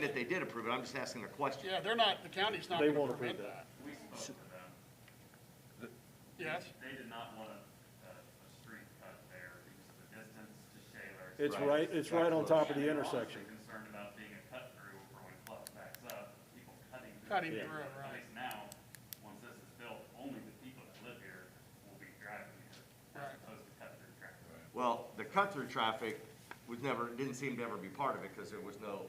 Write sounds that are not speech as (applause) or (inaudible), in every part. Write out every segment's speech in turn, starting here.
that they did approve it, I'm just asking a question. Yeah, they're not, the county's not They gonna won't approve permit that. that. We spoke to them. Yes, They did not want a, a a street cut there because of the distance to Shaler's. It's Right. right, it's right on top of the And they're also intersection. Concerned about being a cut through for when Clough backs up, people cutting. through Cutting the through, street. right. At least now, once this is built, only the people that live here will be driving here. Right. As opposed to cut through traffic. Well, the cut-through traffic was never, didn't seem to ever be part of it, because there was no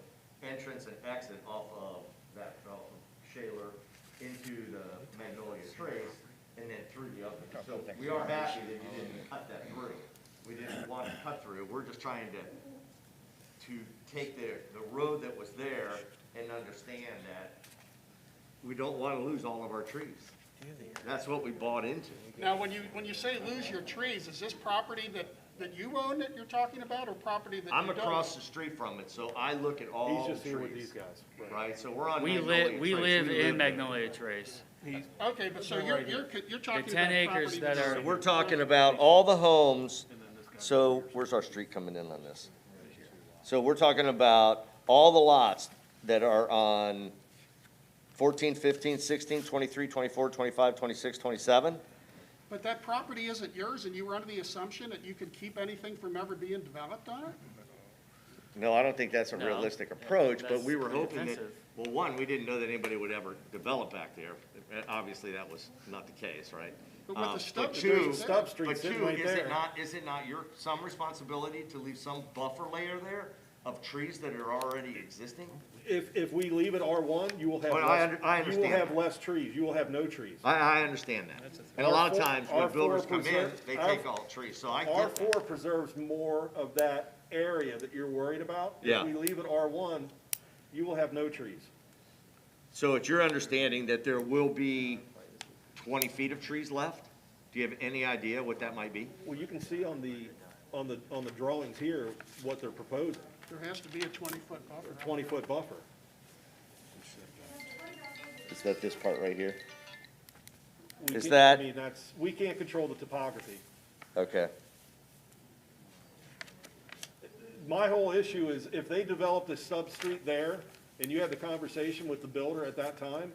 entrance and exit off of that, off of Shaler into the Magnolia Trace, and then through the other. So we are happy that you didn't cut that through. We didn't want to cut through, we're just trying to, to take the, the road that was there and understand that we don't want to lose all of our trees. That's what we bought into. now, when you, when you say lose your trees, is this property that, that you own that you're talking about, or property that you don't? (laughs) I'm across the street from it, so I look at all He's the just here with these trees, guys. right? So we're on We Magnolia live, we Trace. live in there. Magnolia Trace. Okay, but so you're, you're, you're talking about 10 property. acres that that's- are- So we're talking about all the homes, so where's our street coming in on this? So we're talking about all the lots that are on 14, 15, 16, 23, 24, 25, 26, 27. But that property isn't yours, and you were under the assumption that you could keep anything from ever being developed on it? No, I don't think that's a No. realistic approach, but we were That's hoping that, offensive. well, one, we didn't know that anybody would ever develop back there. Uh, Obviously, that was not the case, right? But with the Um, stub- but there's two- a stub street but sitting two, right Is it there. not, is it not your, some responsibility to leave some buffer layer there of trees that are already existing? If, if we leave it R one, you will have Well, I less, under- I you will understand have that. less trees, you will have no trees. I, I understand that. And a lot of R4 times when R4 builders come in, preserve- they R- take all trees, so I R get four that. preserves more of that area that you're worried about. Yeah. If we leave it R one, you will have no trees. So it's your understanding that there will be twenty feet of trees left? Do you have any idea what that might be? Well, you can see on the, on the, on the drawings here what they're proposing, There has to be a twenty-foot buffer. a twenty-foot buffer. Is that this part right here? We Is can't- that- I mean, that's, we can't control the topography. Okay. My whole issue is if they developed a sub-street there and you had the conversation with the builder at that time,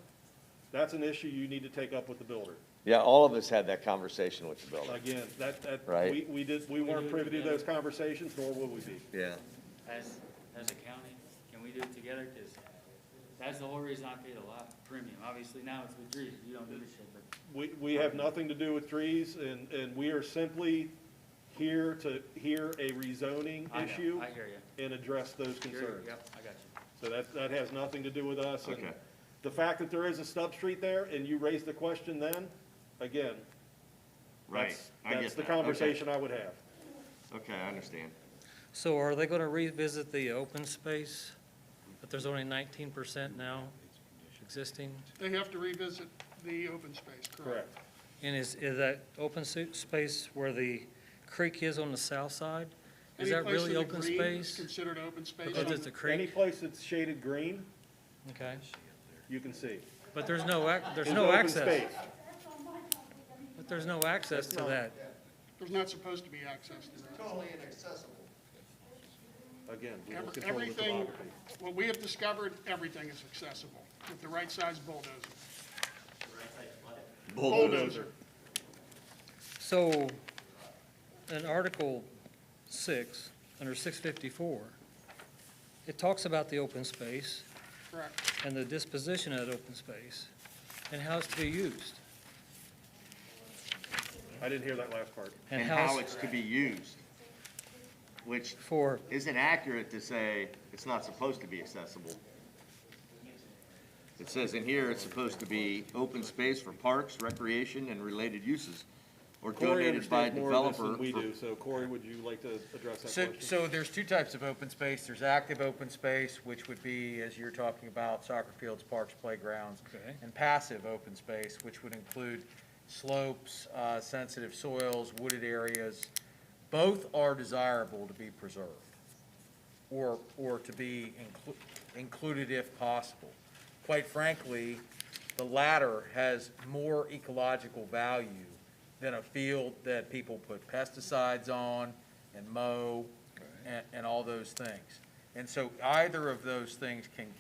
that's an issue you need to take up with the builder. Yeah, all of us had that conversation with the builder. Again, that, that, Right. we, we did, we weren't privy to those conversations, nor will we be. Yeah. As, as a county, can we do it together? Cause that's the whole reason I paid a lot premium. Obviously now it's with trees, you don't give a shit, but We, we have nothing to do with trees and, and we are simply here to hear a rezoning I issue know, I hear you. and address those concerns. Yep, I got you. So that, that has nothing to do with us. and Okay. The fact that there is a sub-street there and you raised the question then, again, Right. that's, I that's get the that. Okay. conversation I would have. Okay, I understand. So are they gonna revisit the open space? But there's only nineteen percent now existing? They have to revisit the open space, correct? Correct. And is, is that open su- space where the creek is on the south side? Is Any that place really in the open green is space? Considered open space. Because it's a Any creek, place that's shaded green, okay? you can see. But there's no, ac- there's It's no open access. space. But there's no access to that. There's not supposed to be access to that. Again, we don't Every- control the Everything, topography. what we have discovered, everything is accessible with the right size bulldozer. Bulldozer. So, in Article six, under six fifty-four, it talks about the open space. Correct. and the disposition of that open space, and how it's to be used. I didn't hear that last part. And how it's to be used, which For, isn't accurate to say it's not supposed to be accessible. It says in here, it's supposed to be open space for parks, recreation, and related uses, or Corey donated by understands more of this developer. than we for- do, so Corey, would you like to address that So, question? so there's two types of open space. There's active open space, which would be, as you're talking about, soccer fields, parks, playgrounds. Okay. And passive open space, which would include slopes, uh, sensitive soils, wooded areas. Both are desirable to be preserved or, or to be inclu- included if possible. Quite frankly, the latter has more ecological value than a field that people put pesticides on and mow and, and all those things. And so either of those things can